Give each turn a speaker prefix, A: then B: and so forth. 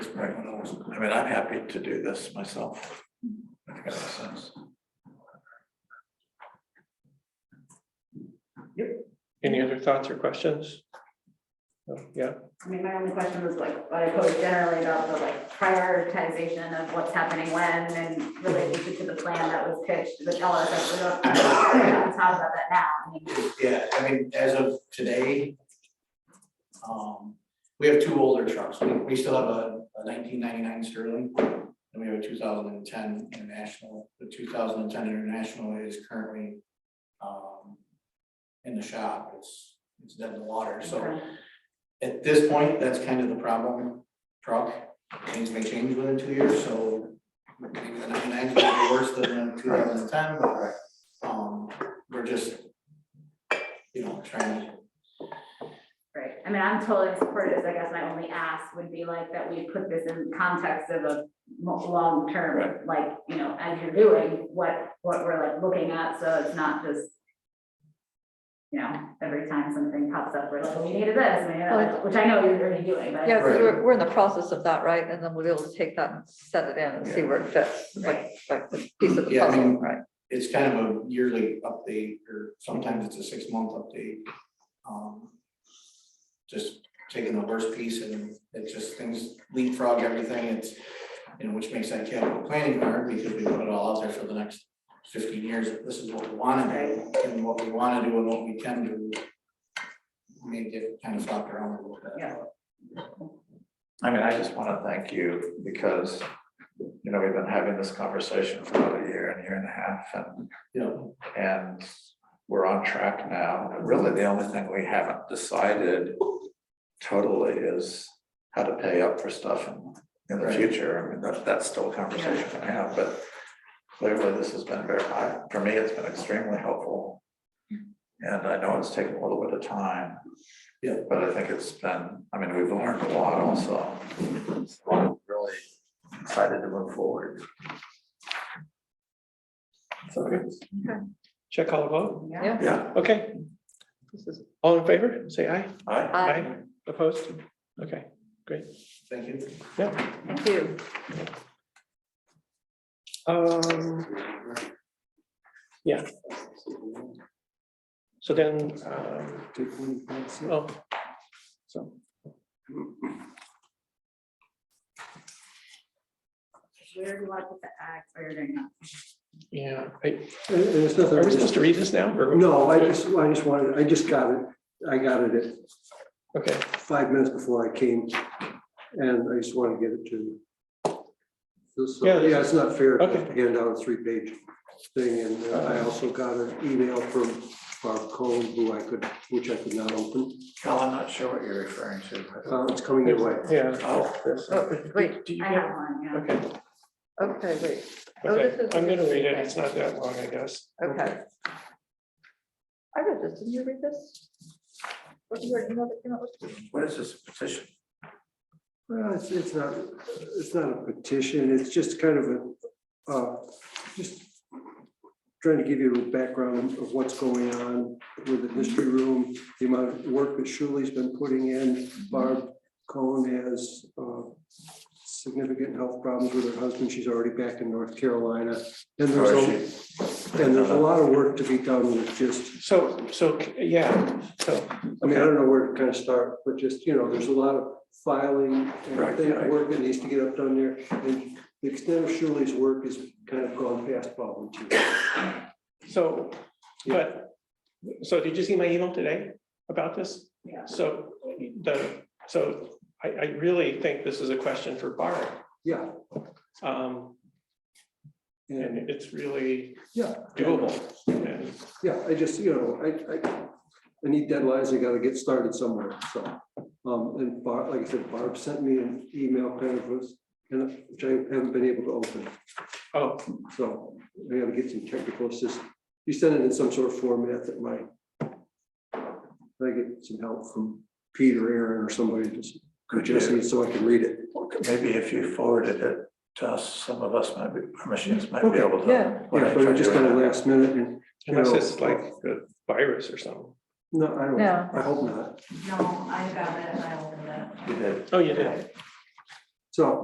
A: Right. I mean, I'm happy to do this myself. I think that makes sense.
B: Any other thoughts or questions? No, Yeah,
C: I mean, my only question was like, what I posed generally about the like prioritization of what's happening when and related to the plan that was pitched, the tell us that we don't. We haven't talked about that now, I mean,
D: Yeah, I mean, as of today, um, we have two older trucks. We, we still have a a nineteen ninety-nine Sterling, and we have a two thousand and ten International. The two thousand and ten International is currently, um, in the shop. It's, it's dead in the water, so. At this point, that's kind of the problem, truck, things may change within two years, so maybe the ninety-nine will be worse than the two thousand and ten, but, um, we're just, you know, trying to,
C: Right, I mean, I'm totally supportive, I guess my only ask would be like that we put this in context of a mo- long-term, like, you know, as you're doing, what, what we're like looking at, so it's not just. You know, every time something pops up, we're like, we needed this, we needed that, which I know you're already doing, but.
E: Yeah, because
D: Right.
E: we're, we're in the process of that, right? And then we'll be able to take that and set it in and see where it fits, like, like the piece of the
D: Yeah, I
E: puzzle,
D: mean-
E: right?
D: it's kind of a yearly update, or sometimes it's a six-month update. Um, Just taking the worst piece and it just things leapfrog everything, it's, you know, which makes that capital planning hard, because we put it all out there for the next fifteen years, this is what we wanna do, and what we wanna do and what we can do. May get kind of flopped around a little bit.
C: Yeah.
A: I mean, I just want to thank you because, you know, we've been having this conversation for about a year and a year and a half and,
D: You know,
A: and we're on track now. Really, the only thing we haven't decided totally is how to pay up for stuff in, in the
D: Right.
A: future. I mean, that, that's still a conversation I have, but clearly this has been very, I- for me, it's been extremely helpful. And I know it's taken a little bit of time.
D: Yeah.
A: But I think it's been, I mean, we've learned a lot also. So I'm Really excited to move forward. So,
B: check all the vote.
E: Yeah.
A: yeah,
B: Okay. This is All in favor, say aye.
A: I,
E: Aye.
B: Opposed? Okay,
D: Thank you.
E: Thank you.
B: um, yeah. So then, um, oh. So,
C: Where do you want to put the act, or you're doing that?
B: yeah, I-
F: And and it's nothing.
B: are we supposed to read this now? or-
F: No, I just, I just wanted, I just got it. I got it
B: Okay,
F: at five minutes before I came. And I just wanted to get it to you. So-
B: Yeah,
F: Yeah, it's not fair to
B: okay.
F: hand out a three-page thing. And uh, I also got an email from Bob Cohen, who I could, which I could not open.
A: Cal, I'm not sure what you're referring to. but-
F: Uh, It's coming your way.
B: yeah.
A: Oh,
E: Oh, wait,
B: Do you
C: I
B: have-
C: have one, yeah.
B: Okay,
E: okay, wait, Oh, this
B: okay,
E: is-
B: I'm gonna read it, it's not that long, I guess.
E: okay. I read this, didn't you read this? What you read, you know, that came out with-
A: what is this petition?
F: Well, it's, it's not, it's not a petition, it's just kind of a, uh, just trying to give you a background of what's going on with the history room, the amount of work that Shuley's been putting in. Barb Cohen has, uh, significant health problems with her husband, she's already back in North Carolina. And there's, a- and there's a lot of work to be done with just,
B: So, so, yeah, so,
F: I mean, I don't know where to kind of start, but just, you know, there's a lot of filing
A: Right,
F: and thing,
A: right.
F: work that needs to get up done there. And the extent of Shirley's work is kind of gone past volunteer.
B: so, but, so did you see my email today about this?
C: Yeah.
B: So, the, so I, I really think this is a question for Barb.
F: Yeah,
B: Um,
F: and
B: and it's really
F: yeah,
B: doable. And
F: yeah, I just, you know, I, I, I need deadlines, I gotta get started somewhere, so. Um, and Barb, like I said, Barb sent me an email kind of was, kind of, which I haven't been able to open,
B: Oh,
F: so I gotta get some technical assistance. You sent it in some sort of format that might. I get some help from Peter, Aaron, or somebody just,
A: Could you-
F: just so I can read it.
A: Maybe if you forwarded it to us, some of us might be, our machines might be
F: Okay,
A: able to.
E: yeah.
F: Yeah, but I just kind of last minute and, you
B: unless
F: know,
B: it's like a virus or something.
F: no, I don't,
E: No.
F: I hope not.
C: No, I got it, I opened it.
A: You did.
B: Oh, you did.
F: So